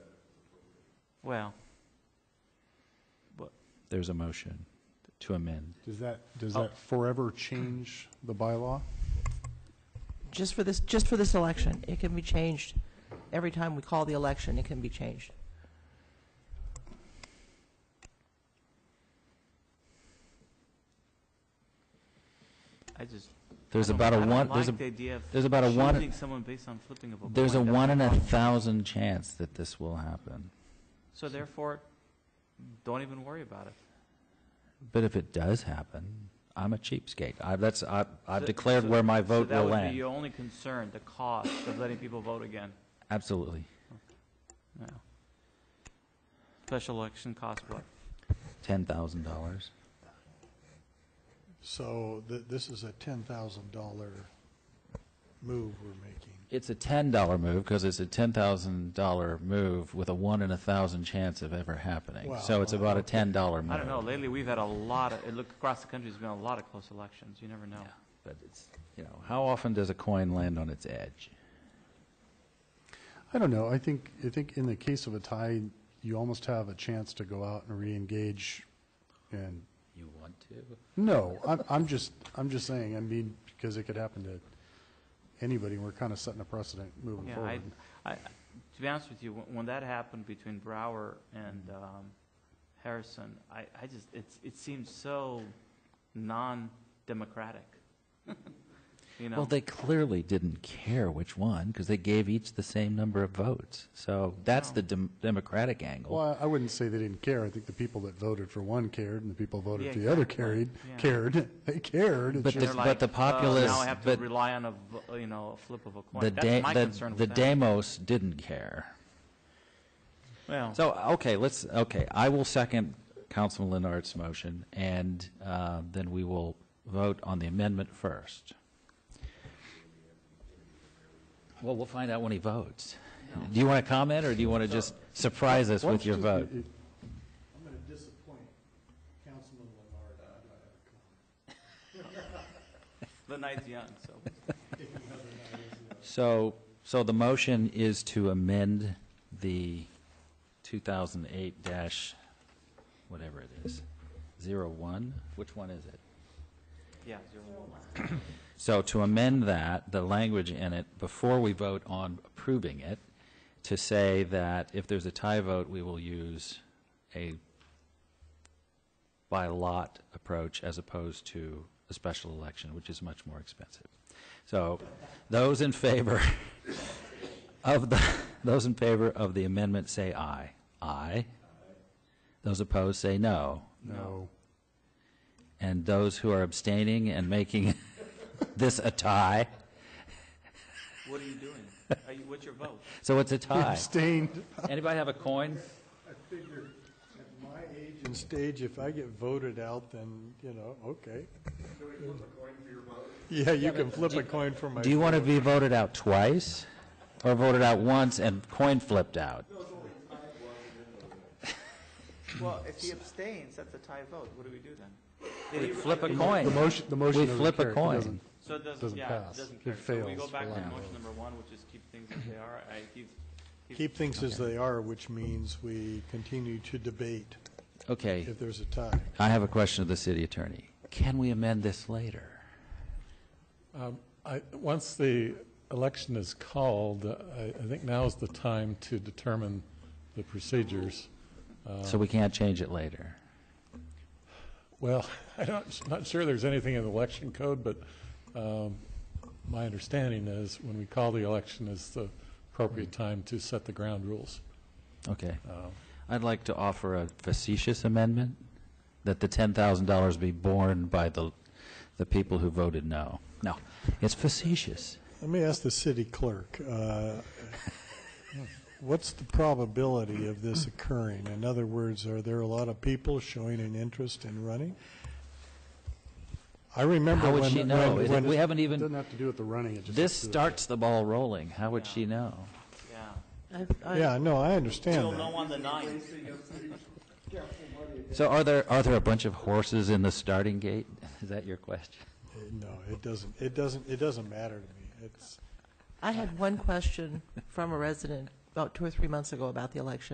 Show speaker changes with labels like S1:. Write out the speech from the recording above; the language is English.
S1: Well,
S2: There's a motion to amend.
S3: Does that, does
S1: Oh.
S3: that forever change the bylaw?
S4: Just for this, just for this election, it can be changed. Every time we call the election, it can be changed.
S1: I just.
S2: There's
S1: I don't-
S2: about a
S1: I don't
S2: one, there's a,
S1: like the idea of
S2: there's about a one-
S1: choosing someone based on flipping of a
S2: there's a
S1: coin. That's
S2: one in a
S1: wrong.
S2: thousand chance that this will happen.
S1: So therefore, don't even worry about it.
S2: But if it does happen, I'm a cheapskate. I, that's, I, I've
S1: So-
S2: declared
S1: so-
S2: where my vote
S1: So that would
S2: will
S1: be
S2: land.
S1: your only concern, the cost of letting people vote again.
S2: Absolutely.
S1: Yeah. Special election cost what?
S2: Ten thousand dollars.
S5: So th- this is a ten thousand dollar move we're making.
S2: It's a ten dollar move because it's a ten thousand dollar move with a one in a thousand chance of ever happening. So
S5: Wow.
S2: it's about a ten dollar move.
S1: I don't know, lately, we've had a lot of, it look, across the country, there's been a lot of close elections, you never know.
S2: But it's, you know, how often does a coin land on its edge?
S3: I don't know. I think, I think in the case of a tie, you almost have a chance to go out and reengage and,
S2: You want to?
S3: no, I'm, I'm just, I'm just saying, I mean, because it could happen to anybody. We're kind of setting a precedent moving
S1: Yeah, I,
S3: forward.
S1: I, to be honest with you, when, when that happened between Brower and,
S2: Mm-hmm.
S1: um, Harrison, I, I just, it's, it seems so non-democratic. You know?
S2: Well, they clearly didn't care which one because they gave each the same number of votes. So that's
S1: No.
S2: the dem- Democratic angle.
S3: Well, I I wouldn't say they didn't care. I think the people that voted for one cared and the people voted
S1: Yeah,
S3: for the other
S1: exactly.
S3: carried,
S1: Yeah.
S3: cared. They cared. It's
S2: But
S3: just-
S1: They're
S2: the-
S1: like,
S2: the
S1: "Oh,
S2: populace-
S1: Now I have to
S2: but-
S1: rely on a, vo- you know, a flip of a coin.
S2: the
S1: That's my
S2: da- the-
S1: concern
S2: the
S1: with that.
S2: Demos didn't care.
S1: Well,
S2: So okay, let's okay. I will second Councilman Leonard's motion, and uh, then we will vote on the amendment first. Well, we'll find out when he votes. Do you want to comment, or do you want to just surprise us
S3: Why
S2: with
S3: don't you
S2: your vote?
S3: just-
S5: I'm going to disappoint Councilman Leonard.
S1: the night's young, so.
S2: So, so the motion is to amend the 2008 dash, whatever it is, 01? Which one is it?
S1: Yeah, zero one.
S2: So to amend that, the language in it, before we vote on approving it, to say that if there's a tie vote, we will use a by lot approach as opposed to a special election, which is much more expensive. So those in favor of the, those in favor of the amendment say aye. Aye. Those opposed say no.
S3: No.
S2: And those who are abstaining and making this a tie,
S1: What are you doing? Are you, what's your vote?
S2: so it's a tie.
S3: Abstained.
S2: Anybody have a coin?
S5: At my age and stage, if I get voted out, then, you know, okay. Yeah, you can flip a coin for my.
S2: Do you want to be voted out twice? Or voted out once and coin flipped out?
S1: Well, if he abstains, that's a tie vote. What do we do then? Did he-
S2: Flip a
S3: The
S2: coin.
S3: motion, the motion
S2: We
S3: doesn't
S2: flip
S3: carry.
S2: a
S3: It
S2: coin.
S3: doesn't-
S1: So it doesn't,
S3: doesn't
S1: yeah, it
S3: pass.
S1: doesn't carry.
S5: It
S1: So we go
S5: fails
S1: back
S5: for
S1: to
S5: lack of-
S1: motion number one, which is keep things as they are. I, keep,
S5: Keep things as they are, which means we continue to debate
S2: Okay,
S5: if there's a tie.
S2: I have a question of the city attorney. Can we amend this later?
S6: Um, I, once the election is called, I, I think now is the time to determine the procedures.
S2: So we can't change it later?
S6: Well, I don't, I'm not sure there's anything in the election code, but um, my understanding is when we call the election is the appropriate time to set the ground rules.
S2: Okay.
S6: Uh,
S2: I'd like to offer a facetious amendment, that the $10,000 be borne by the, the people who voted no. No, it's facetious.
S5: Let me ask the city clerk, uh, what's the probability of this occurring? In other words, are there a lot of people showing an interest in running? I remember
S2: How
S5: when...
S2: would she know?
S5: when-
S2: Is it-
S5: when-
S2: We haven't
S3: It
S2: even,
S3: doesn't have to do with the running, it just.
S2: This
S3: has to do with-
S2: starts the ball rolling. How would she know?
S1: yeah.
S4: I- I-
S5: Yeah, no, I
S1: You'll
S5: understand
S1: know
S5: that.
S1: on the ninth.
S2: So are there, are there a bunch of horses in the starting gate? Is that your question?
S5: No, it doesn't, it doesn't, it doesn't matter to me. It's...
S4: I had one question from a resident about two or three months ago about the election.